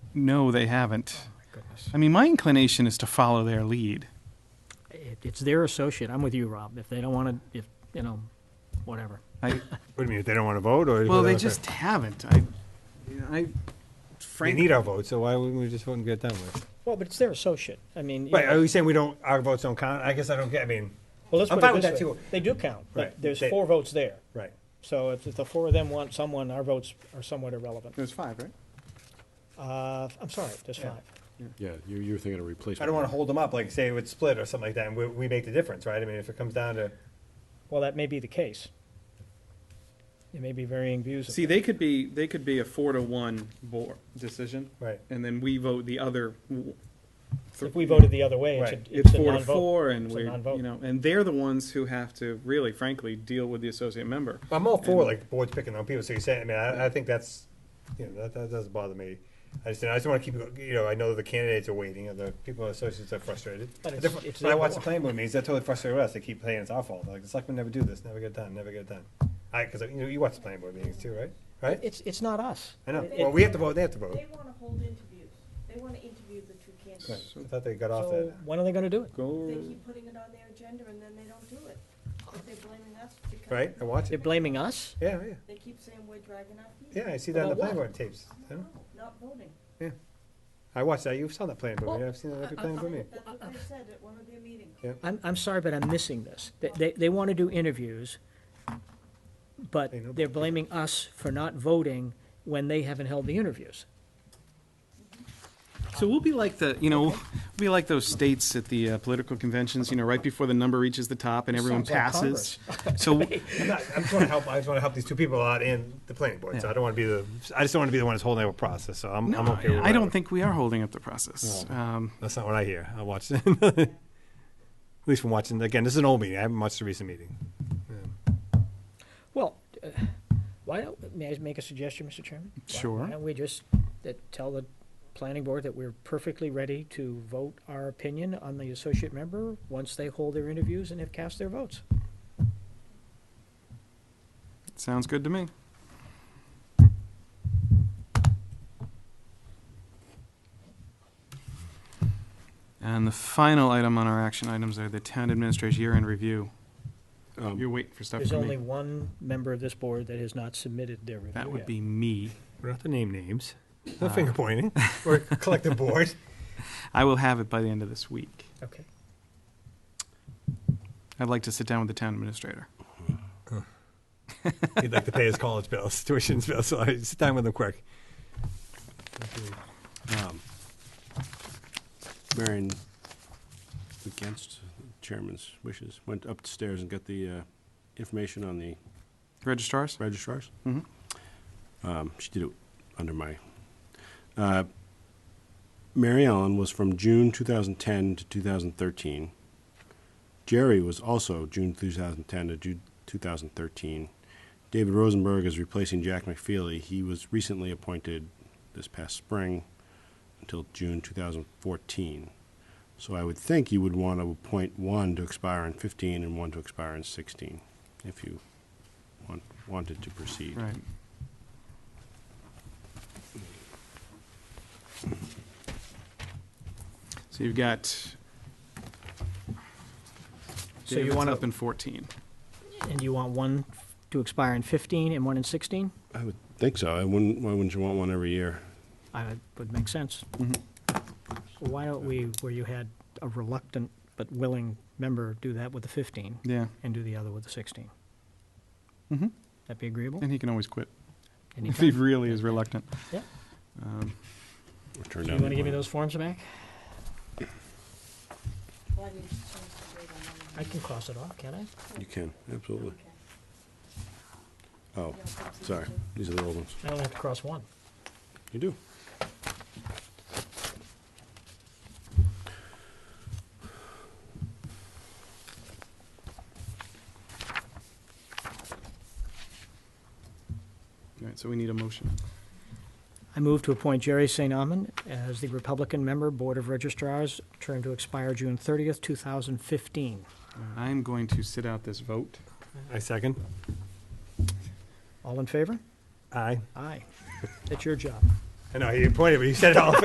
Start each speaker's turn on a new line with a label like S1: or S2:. S1: No, they
S2: Oh
S1: haven't. I mean, my inclination is to follow their lead.
S2: It, it's their associate. I'm with you, Rob. If they don't want to, if, you know, whatever.
S1: I,
S3: What do you mean, if they don't want to vote, or?
S1: well, they just haven't. I, I
S3: They
S1: frankly,
S3: need our vote, so why wouldn't we just vote and get it done with?
S2: Well, but it's their associate. I mean. you
S3: Wait,
S2: know,
S3: are you saying we don't, our votes don't count? I guess I don't get, I mean,
S2: Well, let's
S3: I'm
S2: put it
S3: fine with
S2: this
S3: that,
S2: way.
S3: too.
S2: They do count, but
S3: Right.
S2: there's
S3: They-
S2: four votes there.
S3: right.
S2: So if if the four of them want someone, our votes are somewhat irrelevant.
S1: there's five, right?
S2: Uh, I'm sorry, there's five.
S4: Yeah, you, you were thinking of replacement.
S3: I don't want to hold them up, like, say it's split or something like that, and we, we make the difference, right? I mean, if it comes down to,
S2: Well, that may be the case. There may be varying views. of
S5: See,
S2: that.
S5: they could be, they could be a four to one board decision,
S3: right,
S5: and then we vote the other. w-
S2: If we voted the other way, it's a,
S3: Right.
S5: It's
S2: a
S5: four to
S2: non-vote.
S5: four, and
S2: It's a
S5: we,
S2: non-vote.
S5: you know, and they're the ones who have to really frankly deal with the associate member.
S3: I'm all for like boards picking their own people, so you're saying, I mean, I, I think that's, you know, that, that doesn't bother me. I just, I just want to keep, you know, I know the candidates are waiting, and the people in associates are frustrated.
S2: But it's-
S3: They're fr-
S2: it's
S3: When I
S2: their
S3: watch the
S2: board.
S3: planning board meetings, they're totally frustrated with us, they keep saying it's our fault, like, the selectmen never do this, never get it done, never get it done. I, because, you know, you watch the planning board meetings too, right? Right?
S2: It's, it's not us.
S3: I know,
S2: It-
S3: well, we have to vote, they have to vote.
S6: They want to hold interviews. They want to interview the two
S3: Right.
S6: candidates.
S3: I thought they got off
S2: So
S3: that.
S2: when are they gonna do it?
S6: They
S5: Go,
S6: keep putting it on their agenda and then they don't do it. But they're blaming us because.
S3: Right? I watch
S2: They're
S3: it.
S2: blaming us?
S3: Yeah, yeah.
S6: They keep saying we're dragging our feet.
S3: Yeah, I see that on the
S2: About
S3: planning
S2: what?
S3: board tapes. I know.
S6: Not voting.
S3: I watched that. You saw that planning board
S2: Well,
S3: meeting. I've seen that every planning board meeting.
S6: That's what they said at one of their meetings.
S2: I'm, I'm sorry, but I'm missing this. They- They, they want to do interviews, but
S3: They know.
S2: they're blaming us for not voting when they haven't held the interviews.
S1: So we'll be like the, you know, we'll be like those states at the uh, political conventions, you know, right before the number reaches the top and everyone
S2: Sounds
S1: passes. So,
S3: I'm not, I'm trying to help, I just want to help these two people out and the planning board. So I don't want to be the, I just don't want to be the one that's holding up a process. So I'm,
S1: no,
S3: I'm okay with
S1: I don't
S3: whatever.
S1: think we are holding up the process. Um,
S3: That's not what I hear. I watched it. At least from watching, again, this is an old meeting. I haven't watched the recent meeting.
S2: Well, uh, why don't, may I make a suggestion, Mr. Chairman? Why-
S1: Sure.
S2: Why don't we just uh, tell the planning board that we're perfectly ready to vote our opinion on the associate member once they hold their interviews and have cast their votes?
S1: sounds good to me. And the final item on our action items are the town administrator's year-end review.
S3: Um,
S1: You're waiting for stuff
S2: There's
S1: from
S2: only
S1: me.
S2: one member of this board that has not submitted their review
S1: That would
S2: yet.
S1: be me.
S3: We're not to name names. Uh, No finger pointing. We're a collective board.
S1: I will have it by the end of this week.
S2: Okay.
S1: I'd like to sit down with the town administrator.
S3: He'd like to pay his college bills, tuition bills. So I sit down with him quick.
S4: Um, Marion, against the chairman's wishes, went upstairs and got the uh, information on the
S1: Registrars?
S4: registrars.
S1: Mhm.
S4: Um, She did it under my. uh, Mary Ellen was from June 2010 to 2013. Jerry was also June 2010 to June 2013. David Rosenberg is replacing Jack McFeely. He was recently appointed this past spring until June 2014. So I would think you would want to appoint one to expire in 15 and one to expire in 16 if you want, wanted to proceed.
S1: Right. So you've got
S2: So you
S1: David's
S2: want
S1: up
S2: to,
S1: in 14.
S2: and you want one to expire in 15 and one in 16?
S4: I would think so. I wouldn't, why wouldn't you want one every year?
S2: I would make sense. Mm-hmm. Why don't we, where you had a reluctant but willing member, do that with the 15
S1: Yeah,
S2: and do the other with the 16? Mm-hmm.
S1: Mhm.
S2: That be agreeable?
S1: and he can always quit if he
S2: Anytime?
S1: really is reluctant.
S2: Yeah.
S1: Um,
S4: Or
S2: So
S4: turn
S2: you
S4: down
S2: want to
S4: the
S2: give me
S4: one?
S2: those forms back?
S6: Why did you change the date on that?
S2: I can cross it off, can't I?
S4: You can, absolutely.
S6: Okay.
S4: Oh, sorry. These are the old ones.
S2: I only have to cross one.
S4: You do.
S1: All right, so we need a motion.
S2: I move to appoint Jerry St. Amman as the Republican member, Board of Registrars, term to expire June 30th, 2015.
S1: Uh, I'm going to sit out this vote.
S3: I second.
S2: All in favor?
S3: Aye.
S2: Aye. That's your job.
S3: I know, he pointed, but he said it all.